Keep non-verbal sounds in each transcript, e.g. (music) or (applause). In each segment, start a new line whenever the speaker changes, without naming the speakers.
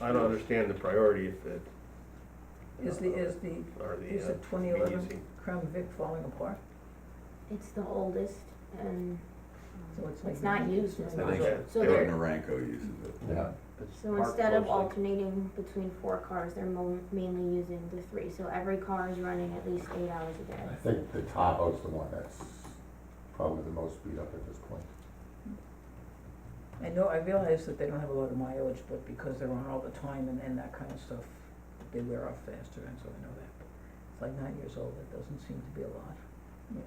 I don't understand the priority if it,
Is the, is the,
or the,
is
uh,
the twenty eleven
VEC.
Crown Vic falling apart?
It's the oldest and
So it's like
it's not
nine-
used
it's
very
not
much.
used.
So
Eric
they're,
Naranko uses it.
Yeah.
so instead of alternating between four cars, they're mo- mainly using the three. So every car is running at least eight hours a
I
day.
think the Tahoe's the one that's probably the most beat up at this point.
I know, I realize that they don't have a lot of mileage, but because they're on all the time and, and that kind of stuff, they wear off faster, and so I know that. It's like nine years old, it doesn't seem to be a lot. Yeah,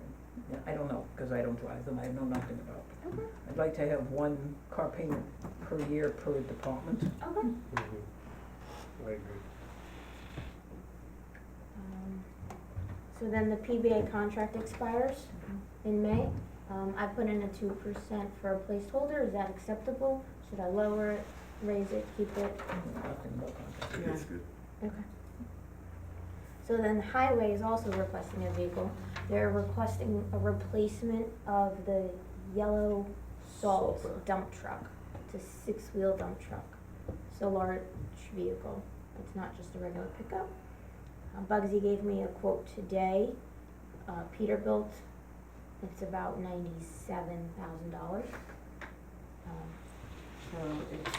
Yeah, I don't know, because I don't drive them, I know nothing about them.
Okay,
I'd like to have one car payment per year per department.
Oh.
okay.
Mhm. Mm-hmm. I agree.
Um, So then the PBA contract expires
Mm-hmm.
in May. Um, I put in a two percent for a placeholder. Is that acceptable? Should I lower it, raise it, keep it?
I know Nothing about contracts.
It's good.
Okay. So then Highway is also requesting a vehicle. They're requesting a replacement of the yellow salt
Salt truck.
dump truck. It's a six-wheel dump truck. It's a large vehicle. It's not just a regular pickup. Uh, Bugsy gave me a quote today, uh, Peterbilt. It's about ninety-seven thousand dollars. Um,
So it's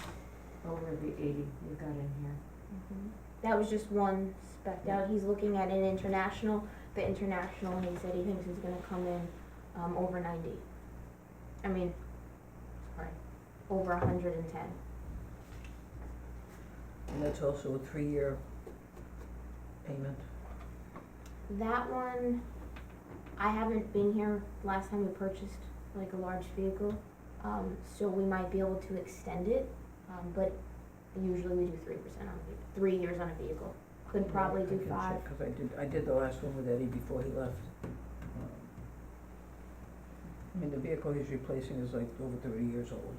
over the eighty you got in here.
Mhm. That was just one spec out, he's looking at an international, the international, he said he thinks is gonna come in, um, over ninety. I mean, sorry, over a hundred and ten.
And that's also a three-year payment.
That one, I haven't been here last time we purchased like a large vehicle, um, so we might be able to extend it, um, but usually we do three percent on, a ve- three years on a vehicle. Could probably
I
do
can
five,
check, Cause I did, I did the last one with Eddie before he left. Um, I mean, the vehicle he's replacing is like over thirty years old.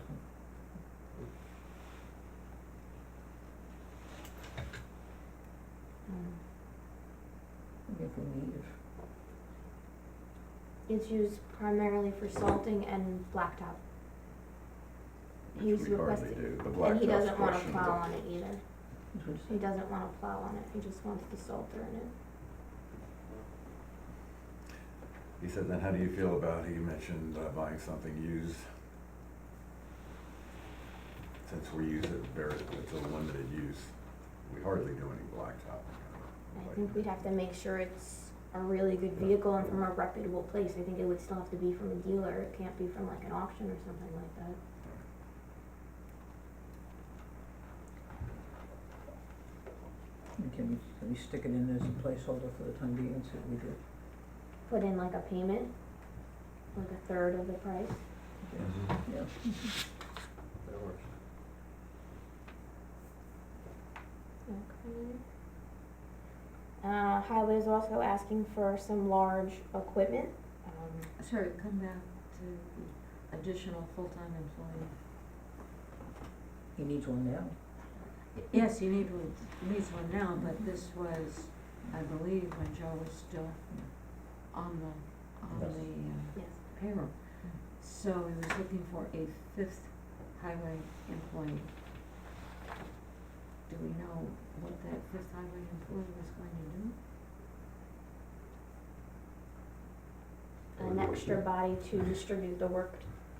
um,
I mean, if we need it.
It's used primarily for salting and blacktop.
Which
He's
we hardly
requested,
do. The
and he
blacktop's
doesn't wanna plow
questionable.
on it either.
That's what it
He
said.
doesn't wanna plow on it, he just wants the salter in it.
He said, then how do you feel about, he mentioned uh, buying something used? Since we use it very, it's a limited use, we hardly do any blacktop.
I think we'd have to make sure it's a really good vehicle and from a reputable place. I think it would still have to be from a dealer, it can't be from like an auction or something like that.
And Can we, can we stick it in as a placeholder for the time being, and see what we do?
Put in like a payment, like a third of the price.
Mhm.
Yeah,
That works.
Okay. Uh, Highway is also asking for some large equipment. Um,
Sorry, come back to the additional full-time employee.
he needs one now.
Yes, you need, one- needs one now, but this was, I believe, when Joe was still on the, on
Yes.
the
yes.
uh, payroll. So he was looking for a fifth highway employee. Do we know what that fifth highway employee was going to
An
do?
extra body to distribute the work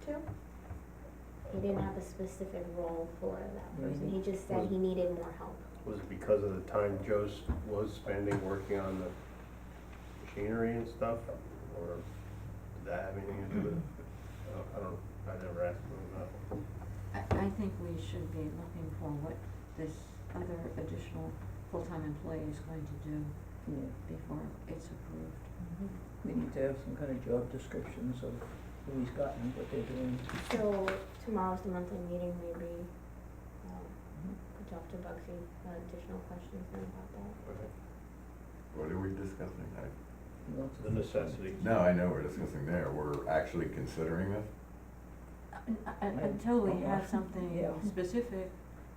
to. He didn't have a specific role for that person. He just said he needed more help.
Was it because of the time Joe s- was spending working on the machinery and stuff? Or did that have anything to do with it? I don't- I don't, I never asked him about it.
I, I think we should be looking for what this other additional full-time employee is going to do
Yeah,
before it's approved.
we need to have some kind of job descriptions of who he's gotten, what they're doing.
So tomorrow's the monthly meeting, maybe, um, we talk to Bugsy, about additional questions then about that.
Okay.
What are we discussing? I-
He wants
The
to-
necessity.
No, I know we're discussing there, we're actually considering this?
Uh, Un- un-
Right.
Until we
(laughs) Yeah.
have something
Yeah.
specific,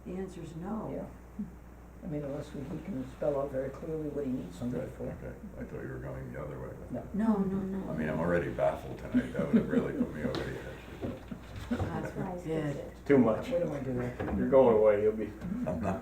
the answer's no.
Yeah. I mean, unless we, he can spell out very clearly what he needs somebody
Right,
for.
Okay, I thought you were going the other way with
Mm-hmm. No.
that.
No, no, no.
I mean, I'm already baffled tonight, that would have really put me over the edge.
God
That's why I skipped
forbid.
it.
Too much.
Where do I do that? Mm-hmm.
You're going away, you'll be
I'm not